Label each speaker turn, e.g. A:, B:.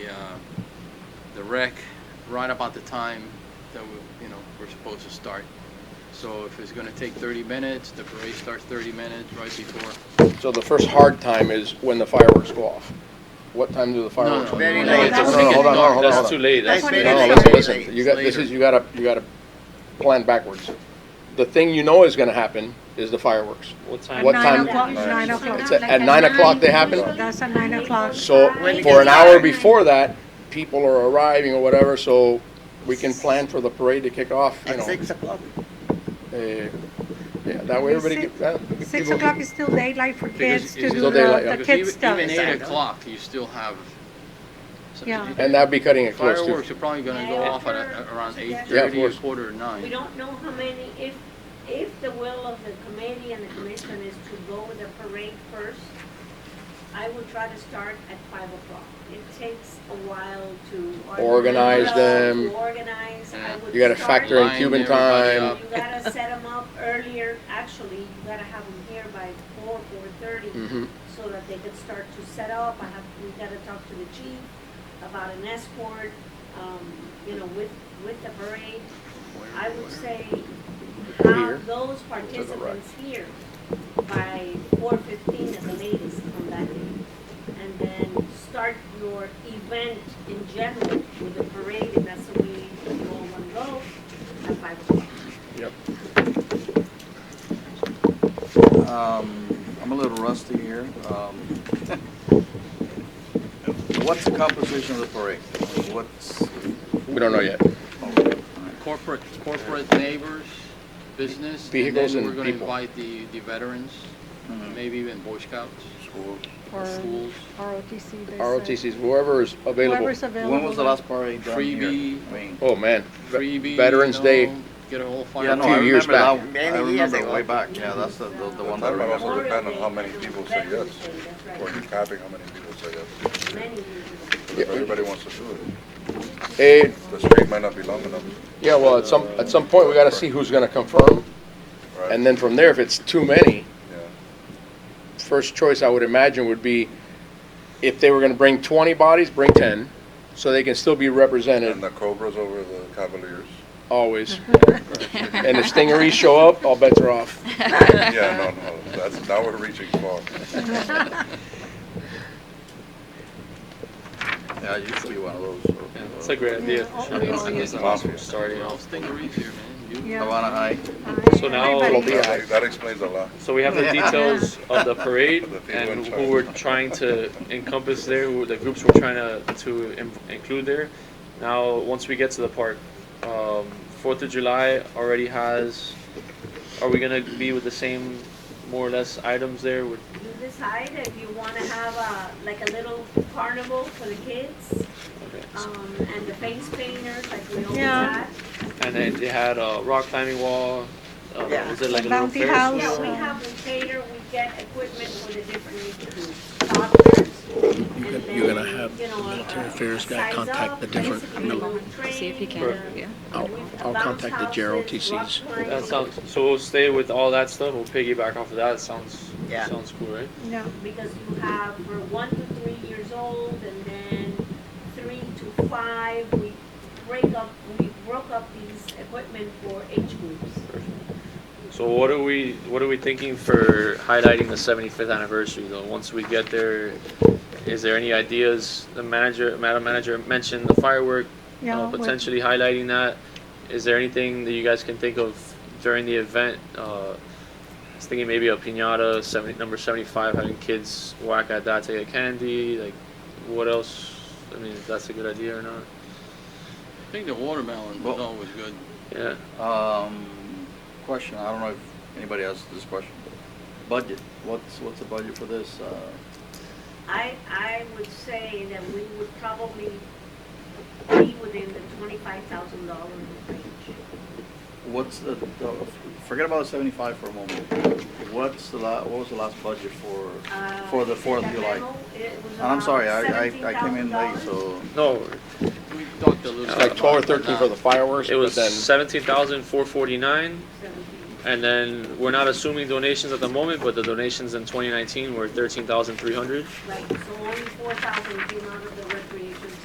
A: rec um, right about the time that we, you know, we're supposed to start. So if it's gonna take thirty minutes, the parade starts thirty minutes right before.
B: So the first hard time is when the fireworks go off. What time do the fireworks?
A: no,
B: go off?
C: very late.
B: No,
C: That's
B: no,
C: when it
B: no,
A: gets
B: hold on, hold on,
A: dark.
B: hold on.
D: That's too late.
C: That's
D: That's
C: when it
B: No,
C: is
B: no,
C: very
B: listen,
C: late.
B: listen, you got,
A: It's
B: this is,
A: later.
B: you gotta, you gotta plan backwards. The thing you know is gonna happen is the fireworks.
D: What time?
B: What
E: Nine
B: time?
E: o'clock, nine o'clock.
B: It's at at nine o'clock they happen,
E: That's at nine o'clock.
B: so
C: When it
B: for an
C: gets
B: hour
C: dark.
B: before that, people are arriving or whatever, so we can plan for the parade to kick off, you
C: At
B: know.
C: six o'clock.
B: eh, Yeah, that way everybody,
E: Six-
B: get- uh,
E: Six
B: people-
E: o'clock is still daylight for
A: Because
E: kids to
A: it's
E: do
B: still
E: the
B: daylight, yeah.
E: the
A: Because
E: kids
A: even,
E: stuff.
A: even
C: I
A: eight
C: know.
A: o'clock, you still have. something
E: Yeah.
A: to do.
B: and that'd be cutting it close too.
A: Fireworks are probably gonna go off at a- around eight
B: Yeah, of
A: thirty,
B: course.
A: quarter to
F: We
A: nine.
F: don't know how many, if, if the will of the committee and the commission is to go with the parade first, I would try to start at five o'clock. It takes a while to.
B: Organize
F: to
B: them.
F: Organize, I would.
B: You gotta
F: start-
B: factor in
A: Line
B: Cuban
A: everybody
B: time.
A: up.
F: You gotta set them up earlier, actually, you gotta have them here by four, four-thirty,
B: Mhm.
F: so that they could start to set up. I have, we gotta talk to the chief about an escort, um, you know, with, with the parade. I would say
B: Here.
F: have those participants here by four fifteen at the latest on that day. And then start your event in general with the parade, if that's the way you all want to go, at five o'clock.
B: Yep.
G: Um, I'm a little rusty here. Um, What's the composition of the parade? I mean, What's,
B: We don't know yet.
A: Corporate, corporate neighbors, business.
B: Vehicles and
A: then we're gonna
B: people. Mm-hmm.
A: invite the, the veterans, maybe even Boy Scouts,
E: Or
A: schools.
E: ROTC. they said.
B: ROTCs, whoever is available.
E: Whoever's available.
G: when was the last parade done here?
A: Freebie.
G: I mean,
B: Oh, man. Ve-
A: Freebie.
B: Veterans
A: you
B: Day.
A: know, Get a whole fire.
G: Yeah, no, I
B: few years
G: remember that.
C: back.
G: I
C: Many years
G: remember
C: ago.
G: way back, yeah, that's the, the the one that I
H: That might also
G: remember.
H: depend on how many people say yes,
F: Veterans Day, that's
H: or
F: right.
H: you're counting how many people say yes.
F: Many years
H: If everybody wants to do it,
B: Eh,
H: the street might not be long enough,
B: yeah, well, at some, at some point, we gotta see who's gonna confirm.
H: right?
B: And then from there, if it's too many,
H: Yeah.
B: first choice I would imagine would be if they were gonna bring twenty bodies, bring ten, so they can still be
H: And
B: represented
H: the Cobras over the Cavaliers.
B: always. And if stingarees show up, all bets are off.
H: Yeah, no, no, that's, now we're reaching far.
G: Yeah, it used to be one of those. uh,
D: It's a great idea.
E: Yeah, all- all
D: It's- it's
E: years.
D: awesome starting
A: Well,
D: off.
A: stingrays here, man. You-
E: Yeah.
G: Havana High.
D: So now-
E: Everybody-
B: Yeah.
H: That that explains a lot.
D: So we have the
G: Yeah.
D: details of the parade
H: The people in
D: and who
H: charge.
D: we're trying to encompass there, who the groups we're trying to, to in- include there. Now, once we get to the park, um, Fourth of July already has, are we gonna be with the same more or less items there with
F: ago. You decide if you want to have a, like a little carnival for the kids, um, and the face painters, like we always
E: Yeah.
F: have.
D: And then they had a rock climbing wall. Uh,
C: Yeah.
D: Was it like a little
E: Bounty
D: Ferris
E: house.
F: Yeah,
D: wheel?
F: we have the cater, we get equipment for the different doctors.
I: You're gonna have military affairs guy contact the different mil-
F: See if he
I: can, yeah. I'll- I'll contact the Gerald TCs.
D: That sounds so. We'll stay with all that stuff. We'll piggyback off of that. Sounds
C: Yeah.
D: sounds cool, right?
E: Yeah,
F: Because you have for one to three years old and then three to five, we break up, we broke up these equipment for age groups.
D: So what are we what are we thinking for highlighting the 75th anniversary though? Once we get there, is there any ideas? The manager, madam manager, mentioned the firework
E: yeah.
D: uh,
E: with-
D: potentially highlighting that. Is there anything that you guys can think of during the event? Uh, I was thinking maybe a pinata, 70, number 75, having kids whack at that to get candy. Like, what else? I mean, if that's a good idea or not.
A: I think the watermelon was
G: Well-
A: always good.
D: Yeah.
G: Um, question, I don't know if anybody asked this question. Budget, what's, what's the budget for this? Uh,
F: I, I would say that we would probably be within the twenty-five thousand dollar range.
G: What's the, the- forget about the seventy-five for a moment. What's the la, what was the last budget for,
F: Uh,
G: for the Fourth of
F: that
G: July?
F: memo, it was
G: And I'm sorry,
F: about
G: I, I, I came in late,
F: $17,000.
G: so.
D: No,
A: We talked a little.
B: It's
A: bit
B: like twelve or
A: about it,
B: thirteen
A: but
B: for the
A: not-
B: fireworks,
D: it
B: but
D: was
B: then,
D: 17,449.
F: Seventeen.
D: And then we're not assuming donations at the moment, but the donations in 2019 were 13,300.
F: Right, so only four thousand came out of the